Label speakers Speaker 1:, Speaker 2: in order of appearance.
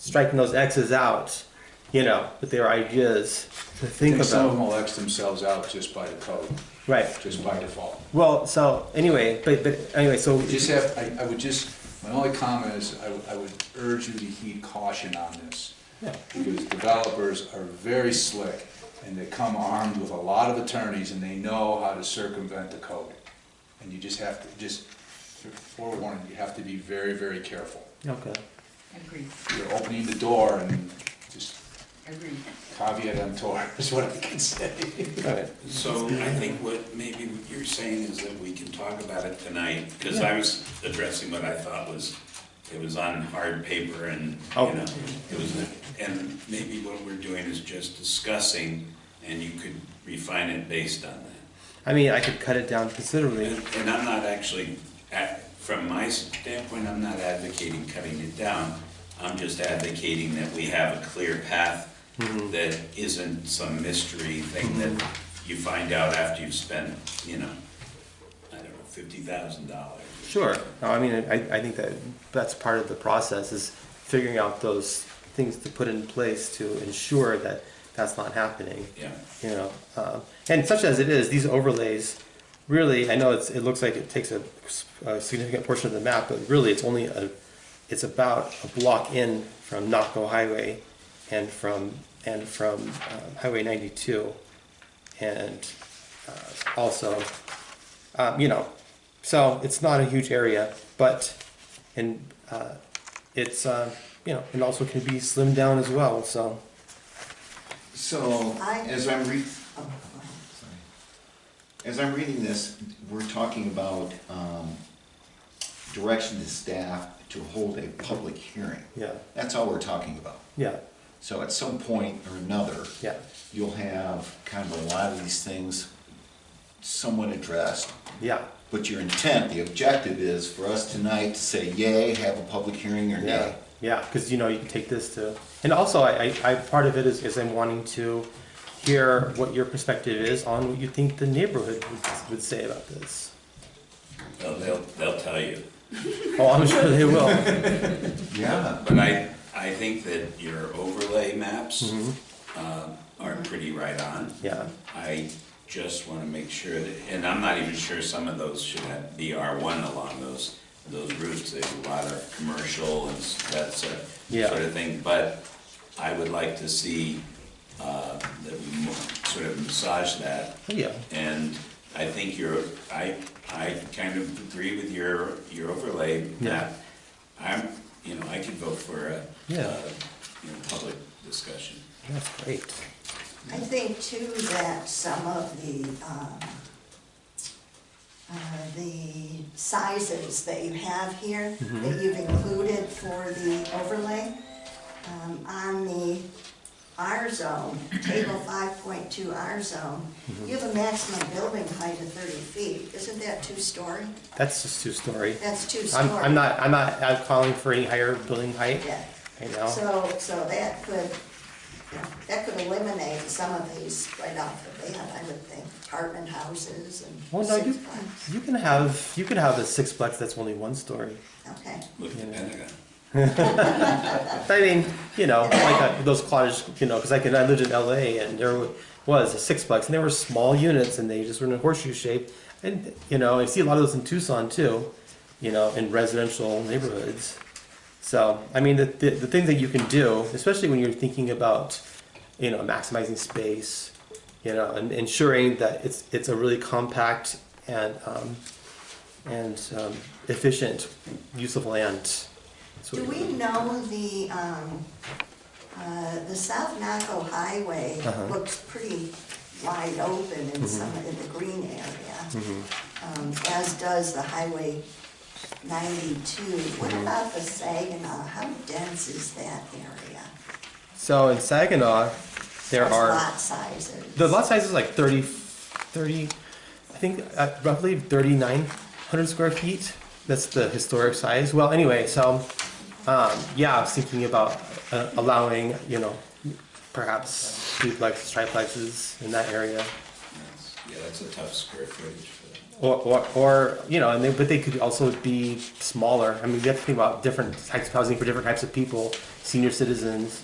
Speaker 1: striking those X's out, you know, with their ideas to think
Speaker 2: think some of
Speaker 1: about.
Speaker 2: them will X themselves out just by the code,
Speaker 1: Right.
Speaker 2: just by default.
Speaker 1: Well, so anyway, but, but anyway, so
Speaker 2: We just have, I, I would just, my only comment is, I, would- I would urge you to heed caution on this. Because developers are very slick, and they come armed with a lot of attorneys, and they know how to circumvent the code. And you just have to, just forewarning, you have to be very, very careful.
Speaker 1: okay,
Speaker 3: Agreed,
Speaker 2: You're opening the door and just
Speaker 3: agreed.
Speaker 2: caveat emptor is what I can say.
Speaker 1: got it.
Speaker 4: So I think what maybe what you're saying is that we can talk about it tonight, because I was addressing what I thought was, it was on hard paper and, you
Speaker 1: Oh.
Speaker 4: know, it was, and maybe what we're doing is just discussing, and you could refine it based on that.
Speaker 1: I mean, I could cut it down considerably.
Speaker 4: And and I'm not actually, at- from my standpoint, I'm not advocating cutting it down. I'm just advocating that we have a clear path that isn't some mystery thing that you find out after you've spent, you know, I don't know, fifty thousand dollars.
Speaker 1: Sure. No, I mean, I, I think that that's part of the process is figuring out those things to put in place to ensure that that's not happening.
Speaker 4: Yeah.
Speaker 1: You know, uh, and such as it is, these overlays really, I know it's, it looks like it takes a, a significant portion of the map, but really it's only a, it's about a block in from Naco Highway and from, and from um, Highway 92 and uh, also um, you know, so it's not a huge area, but and uh, it's uh, you know, it also can be slimmed down as well. So
Speaker 5: So,
Speaker 6: I-
Speaker 5: as I'm re,
Speaker 6: Oh, wow.
Speaker 5: as I'm reading this, we're talking about, um, direction to staff to hold a public hearing.
Speaker 1: yeah,
Speaker 5: That's all we're talking about.
Speaker 1: yeah,
Speaker 5: So at some point or another.
Speaker 1: Yeah.
Speaker 5: You'll have kind of a lot of these things somewhat addressed,
Speaker 1: yeah,
Speaker 5: but your intent, the objective is for us tonight to say yay, have a public hearing or
Speaker 1: yeah,
Speaker 5: nay.
Speaker 1: yeah. Because you know, you can take this to, and also I, I, I part of it is, is I'm wanting to hear what your perspective is on what you think the neighborhood would, would say about this.
Speaker 4: They'll, they'll, they'll tell you.
Speaker 1: Oh, I'm sure they will.
Speaker 5: Yeah.
Speaker 4: But I, I think that your overlay maps um, are pretty right on.
Speaker 1: Yeah.
Speaker 4: I just want to make sure that, and I'm not even sure some of those should have, be R1 along those, those routes. There's a lot of commercial and s- that sort of-
Speaker 1: Yeah.
Speaker 4: sort of thing. But I would like to see uh, that we mo- sort of massage that.
Speaker 1: Yeah.
Speaker 4: And I think you're, I, I kind of agree with your, your overlay
Speaker 1: Yeah.
Speaker 4: map. I'm, you know, I could vote for a,
Speaker 1: Yeah.
Speaker 4: uh, you know, public discussion.
Speaker 1: That's great.
Speaker 6: I think too that some of the, um, uh, the sizes that you have here,
Speaker 1: Mm-hmm.
Speaker 6: that you've included for the overlay, um, on the R zone, table five point two R zone,
Speaker 1: Mm-hmm.
Speaker 6: you have a maximum building height of thirty feet, isn't that two-story?
Speaker 1: That's just two story.
Speaker 6: That's two-story.
Speaker 1: I'm, I'm not I'm not I'm calling for any higher building height.
Speaker 6: Yeah.
Speaker 1: You know.
Speaker 6: So, so that could, you know, that could eliminate some of these right off the bat, I would think, apartment houses
Speaker 1: Well,
Speaker 6: and
Speaker 1: Oh, no, you,
Speaker 6: sixplex.
Speaker 1: you can have, you can have a sixplex that's only one story.
Speaker 6: Okay,
Speaker 4: Look at the Pentagon.
Speaker 1: I mean, you know, like uh, those cottage, you know, because I could, I lived in LA and there was a sixplex and they were small units and they just were in a horseshoe shape. And, you know, I see a lot of those in Tucson too, you know, in residential neighborhoods. So, I mean, the, the, the things that you can do, especially when you're thinking about, you know, maximizing space, you know, and ensuring that it's, it's a really compact and, um, and um, efficient use of land. That's what
Speaker 6: do
Speaker 1: it
Speaker 6: we
Speaker 1: is.
Speaker 6: know the, um, uh, the South Naco Highway
Speaker 1: Uh-huh. Mm-hmm.
Speaker 6: looks pretty wide open in some, in the green area. Um, as does the Highway ninety-two, what
Speaker 1: Mm-hmm.
Speaker 6: about the Saginaw, how dense is that area?
Speaker 1: So in Saginaw, there
Speaker 6: What's
Speaker 1: are
Speaker 6: Lot sizes.
Speaker 1: the lot size is like 30, 30 I think uh, roughly 3,900 square feet. That's the historic size. Well, anyway, so um, yeah, I was thinking about uh, allowing, you know, perhaps duplexes, triplexes in that area.
Speaker 4: That's- Yeah, that's a tough square footage for that.
Speaker 1: Or, or, or you know, and they, but they could also be smaller. I mean, you have to think about different types of housing for different types of people. senior citizens,